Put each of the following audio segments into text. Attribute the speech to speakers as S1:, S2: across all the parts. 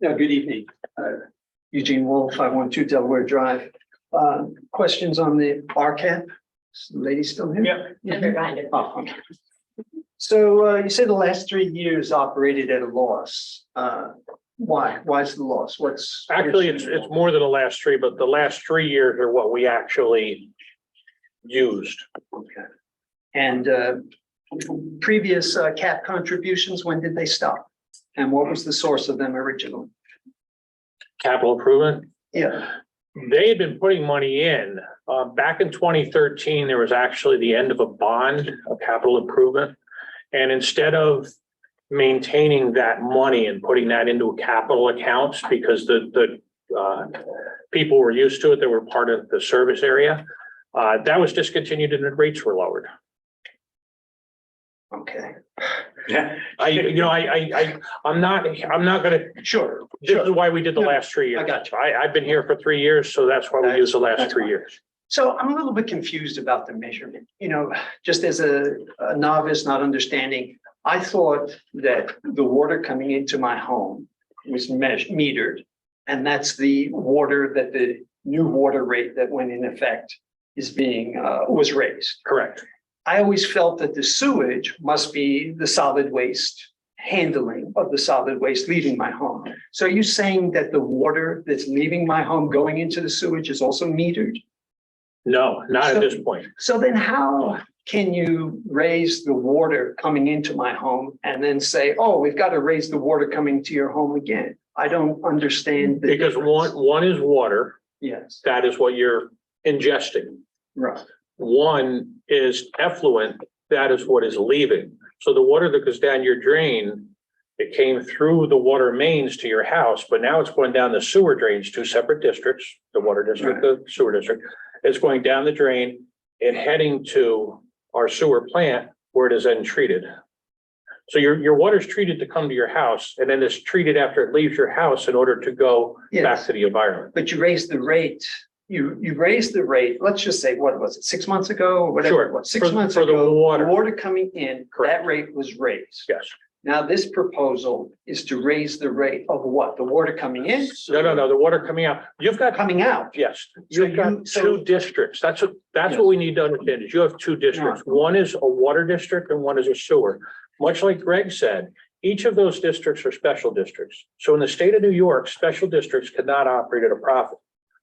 S1: Yeah, good evening. Uh, Eugene Wolf, five one two Delaware Drive. Uh, Questions on the RCAP? Is the Lady still here?
S2: Yeah.
S1: Yeah. Oh, So uh, you said the last three years operated at a loss. Uh, Why? Why is the loss? What's?
S2: Actually, it's, it's more than the last three, but the last three years are what we actually used.
S1: Okay. And uh, previous uh, cap contributions, when did they stop? And what was the source of them originally?
S2: Capital improvement,
S1: Yeah,
S2: they had been putting money in. Uh, back in twenty thirteen, there was actually the end of a bond, a capital improvement. And instead of maintaining that money and putting that into capital accounts, because the, the, uh, people were used to it, that were part of the service area, uh, that was discontinued and the rates were lowered.
S1: okay.
S2: I, you know, I, I, I, I'm not, I'm not gonna,
S1: Sure.
S2: this is why we did the
S1: No,
S2: last three years.
S1: I got
S2: I, I've been here for three years, so that's why we use the last
S1: That's
S2: three
S1: fine.
S2: years.
S1: So I'm a little bit confused about the measurement, you know, just as a a novice not understanding. I thought that the water coming into my home was measured, metered. And that's the water that the new water rate that went in effect is being, uh, was raised.
S2: Correct.
S1: I always felt that the sewage must be the solid waste handling of the solid waste leaving my home. So are you saying that the water that's leaving my home going into the sewage is also metered?
S2: No, not at this point.
S1: So then how can you raise the water coming into my home and then say, oh, we've got to raise the water coming to your home again? I don't understand. the
S2: Because one,
S1: difference.
S2: one is water,
S1: Yes,
S2: that is what you're ingesting.
S1: right.
S2: One is effluent, that is what is leaving. So the water that goes down your drain, it came through the water mains to your house, but now it's going down the sewer drains, two separate districts, the water district, the sewer district. It's going down the drain and heading to our sewer plant where it is then treated. So your, your water's treated to come to your house and then it's treated after it leaves your house in order to go back
S1: Yes,
S2: to the environment.
S1: but you raised the rate. You, you raised the rate, let's just say, what was it, six months ago or whatever it
S2: Sure,
S1: was, six
S2: for-
S1: months
S2: for the
S1: ago?
S2: water.
S1: Water coming in, that
S2: Correct.
S1: rate was raised.
S2: Yes.
S1: Now, this proposal is to raise the rate of what? The water coming in?
S2: No, no, no, the water coming out. You've got
S1: Coming out?
S2: Yes,
S1: So
S2: you've got
S1: you- so-
S2: two districts. That's what, that's
S1: Yes.
S2: what we need to understand is you have two districts. One is a water district and one is a sewer. Much like Greg said, each of those districts are special districts. So in the state of New York, special districts cannot operate at a profit.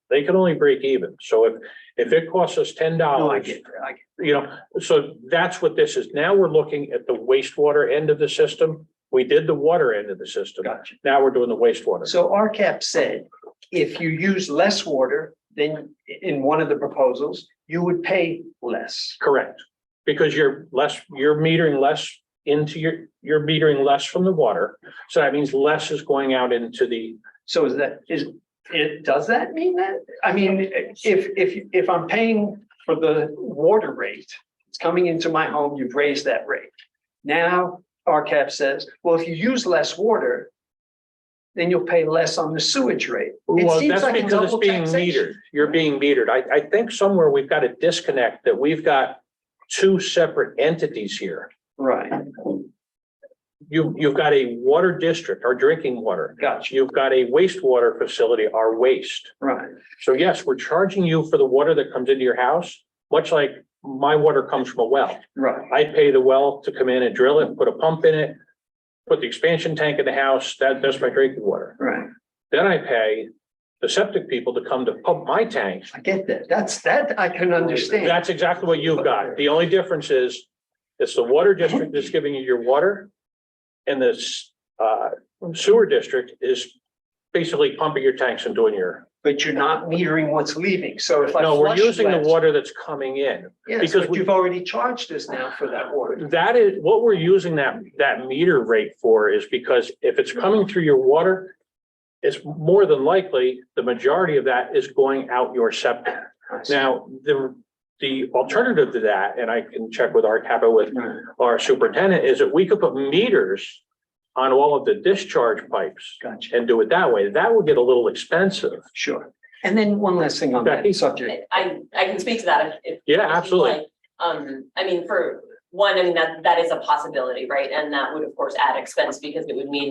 S2: They can only break even. So if, if it costs us ten
S1: No, Oh, I
S2: dollars,
S1: get, I get.
S2: you know, so that's what this is. Now we're looking at the wastewater end of the system. We did the water end of the system.
S1: Gotcha.
S2: Now we're doing the wastewater.
S1: So RCAP said, if you use less water than in one of the proposals, you would pay less.
S2: Correct, because you're less, you're metering less into your, you're metering less from the water. So that means less is going out into the,
S1: So is that, is, it, does that mean that? I mean, if, if, if I'm paying for the water rate, it's coming into my home, you've raised that rate. Now, RCAP says, well, if you use less water, then you'll pay less on the sewage rate. It
S2: well,
S1: seems
S2: that's
S1: like a
S2: because it's
S1: double
S2: being
S1: taxation.
S2: metered. You're being metered. I, I think somewhere we've got a disconnect that we've got two separate entities here.
S1: Right,
S2: You, you've got a water district, our drinking water.
S1: gotcha,
S2: You've got a wastewater facility, our waste.
S1: right,
S2: So yes, we're charging you for the water that comes into your house, much like my water comes from a well.
S1: right,
S2: I pay the well to come in and drill it, put a pump in it, put the expansion tank in the house, that, that's my drinking water.
S1: right.
S2: Then I pay the septic people to come to pump my tanks.
S1: I get that. That's, that I can understand.
S2: That's exactly what you've got. The only difference is, it's the water district that's giving you your water. And this, uh, sewer district is basically pumping your tanks and doing your,
S1: But you're not metering what's leaving, so if I.
S2: no, we're
S1: flush
S2: using the
S1: less-
S2: water that's coming in.
S1: Yes,
S2: because
S1: but
S2: we-
S1: you've already charged us now for that water.
S2: That is, what we're using that, that meter rate for is because if it's coming through your water, it's more than likely, the majority of that is going out your septic. Now, the, the alternative to that, and I can check with our capital with our superintendent, is that we could put meters on all of the discharge pipes
S1: Gotcha,
S2: and do it that way. That would get a little expensive.
S1: sure. And then one last thing on
S2: Becky?
S1: that subject.
S3: I, I can speak to that if- if.
S2: Yeah,
S3: if you'd
S2: absolutely.
S3: like. Um, I mean, for one, I mean, that, that is a possibility, right? And that would, of course, add expense because it would mean